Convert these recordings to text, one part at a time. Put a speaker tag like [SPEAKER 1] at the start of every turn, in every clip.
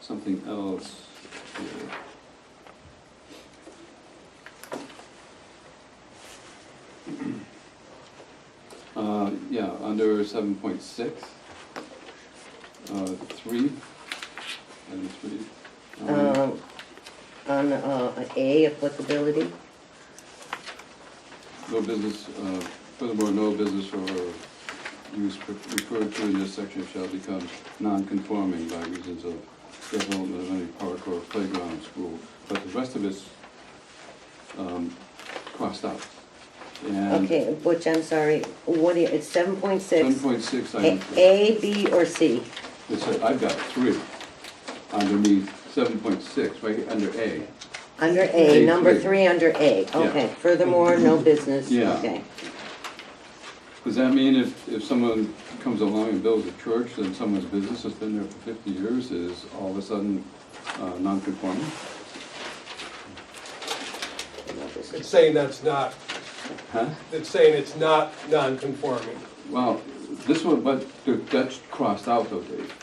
[SPEAKER 1] something else here. Uh, yeah, under seven point six, uh, three, item three. um,
[SPEAKER 2] Um, On uh, A, applicability,
[SPEAKER 1] No business, uh, furthermore, no business or use pre- referred to in this section shall become non-conforming by reasons of development of any park or playground, school. But the rest of it's um, crossed out. And
[SPEAKER 2] okay, Butch, I'm sorry, what, do you- it's seven point
[SPEAKER 1] seven
[SPEAKER 2] six?
[SPEAKER 1] point six, I,
[SPEAKER 2] A, B, or C?
[SPEAKER 1] it's, I've got three underneath seven point six, right under A.
[SPEAKER 2] Under A,
[SPEAKER 1] A
[SPEAKER 2] number
[SPEAKER 1] three.
[SPEAKER 2] three, under A, okay, furthermore, no business,
[SPEAKER 1] Yeah.
[SPEAKER 2] okay.
[SPEAKER 1] Does that mean if, if someone comes along and builds a church, then someone's business that's been there for fifty years is all of a sudden, uh, non-conforming?
[SPEAKER 2] No business.
[SPEAKER 3] It's saying that's not,
[SPEAKER 1] Huh?
[SPEAKER 3] it's saying it's not non-conforming.
[SPEAKER 1] Well, this one, but the- that's crossed out though, Dave.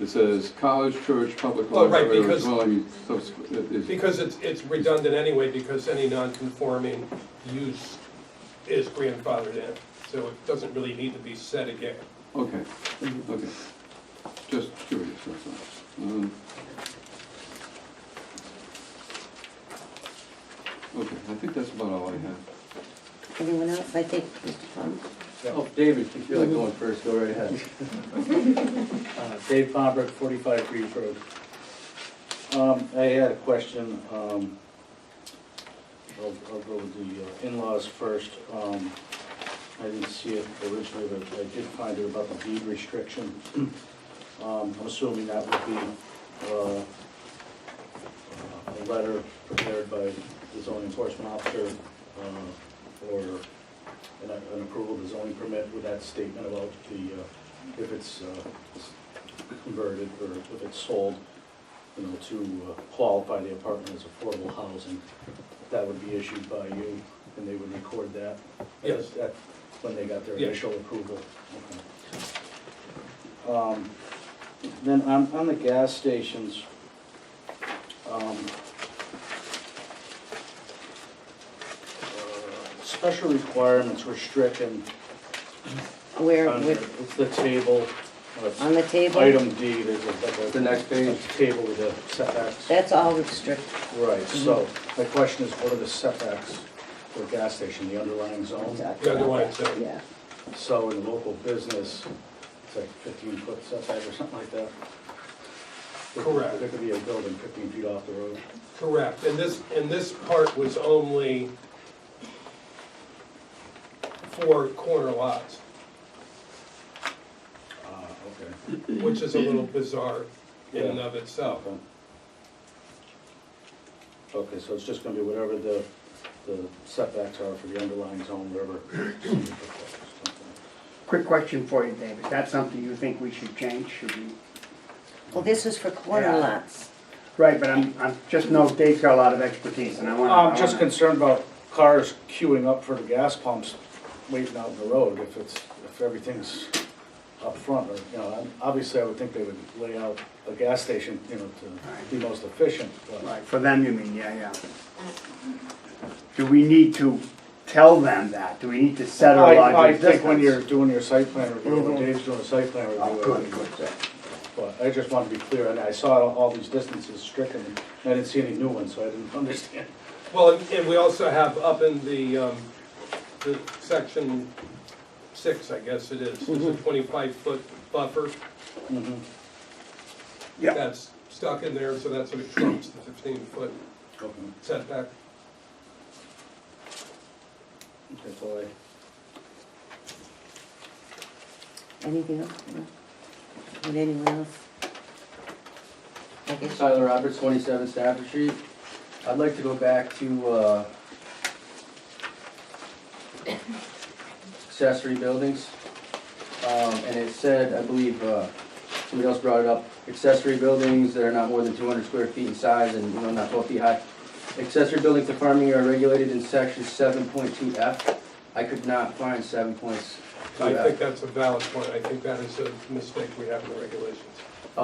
[SPEAKER 1] It says college, church, public
[SPEAKER 3] Oh, right,
[SPEAKER 1] library, or
[SPEAKER 3] because-
[SPEAKER 1] dwelling, subsequent, it is-
[SPEAKER 3] Because it's, it's redundant anyway, because any non-conforming use is grandfathered in. So it doesn't really need to be said again.
[SPEAKER 1] okay, okay. Just curious, that's all. Um, Okay, I think that's about all I have.
[SPEAKER 2] Anyone else, I think, Mr. Plum?
[SPEAKER 4] Oh, David, if you feel like going first, go right ahead.
[SPEAKER 5] Uh, Dave Pomper, 45 Reed Road. Um, I had a question. um, I'll I'll go with the uh, in-laws first. Um, I didn't see it originally, but I did find it about the deed restriction. Um, I'm assuming that would be uh, a letter prepared by the zoning enforcement officer uh, or an an approval of the zoning permit with that statement about the, uh, if it's uh, converted or if it's sold, you know, to uh, qualify the apartment as affordable housing, that would be issued by you and they would record that?
[SPEAKER 3] Yes.
[SPEAKER 5] That- When they got their
[SPEAKER 3] Yeah.
[SPEAKER 5] initial approval? Okay. Um, Then on, on the gas stations, um, uh, special requirements were stricken.
[SPEAKER 2] Where,
[SPEAKER 5] on-
[SPEAKER 2] where-
[SPEAKER 5] It's the table, uh, it's
[SPEAKER 2] on the table?
[SPEAKER 5] item D, there's a, like a-
[SPEAKER 4] The next page.
[SPEAKER 5] a Table with the setbacks.
[SPEAKER 2] That's all restricted,
[SPEAKER 5] Right, so
[SPEAKER 2] Mm-hmm.
[SPEAKER 5] my question is, what are the setbacks for a gas station, the underlying zone?
[SPEAKER 3] The underlying zone.
[SPEAKER 2] yeah.
[SPEAKER 5] So in local business, it's like fifteen foot setback or something like that? There could-
[SPEAKER 3] Correct.
[SPEAKER 5] There could be a building fifteen feet off the road.
[SPEAKER 3] Correct. And this, and this part was only for corner lots,
[SPEAKER 5] Ah, okay.
[SPEAKER 3] which is a little bizarre in and of itself.
[SPEAKER 5] Okay. Okay, so it's just gonna be whatever the, the setbacks are for the underlying zone, whatever.
[SPEAKER 6] Quick question for you, David. That's something you think we should change, should we?
[SPEAKER 2] Well, this is for corner
[SPEAKER 6] Yeah.
[SPEAKER 2] lots.
[SPEAKER 6] Right, but I'm, I'm, just know Dave's got a lot of expertise and I wanna. I
[SPEAKER 5] I'm just
[SPEAKER 6] wanna-
[SPEAKER 5] concerned about cars queuing up for the gas pumps waiting out in the road if it's, if everything's up front or, you know, I'm- obviously I would think they would lay out a gas station, you know, to be most efficient, but.
[SPEAKER 6] Right, for them you mean, yeah, yeah. Do we need to tell them that? Do we need to set our
[SPEAKER 5] I, I
[SPEAKER 6] logic
[SPEAKER 5] think when
[SPEAKER 6] distance?
[SPEAKER 5] you're doing your site plan review, when Dave's doing a site plan review.
[SPEAKER 6] Mm-hmm. Oh,
[SPEAKER 5] I
[SPEAKER 6] good,
[SPEAKER 5] think-
[SPEAKER 6] good, good.
[SPEAKER 5] But I just want to be clear, and I saw all these distances stricken, and I didn't see any new ones, so I didn't understand.
[SPEAKER 3] Well, and- and we also have up in the, um, the section six, I guess it is, is a twenty-five foot buffer.
[SPEAKER 6] Mm-hmm. Yep.
[SPEAKER 3] That's stuck in there, so that's what it trumps, the fifteen foot
[SPEAKER 5] Okay,
[SPEAKER 3] setback.
[SPEAKER 5] That's all I.
[SPEAKER 2] Anything else? No? Would anyone else? I guess,
[SPEAKER 4] Tyler Roberts, 27 Stafford Street. I'd like to go back to uh, accessory buildings. Um, And it said, I believe, uh, somebody else brought it up, accessory buildings that are not more than 200 square feet in size and, you know, not 12 feet high. Accessory buildings to farming are regulated in section 7.2F. I could not find 7.2F.
[SPEAKER 3] I think that's a valid point, I think that is a mistake we have in the regulations.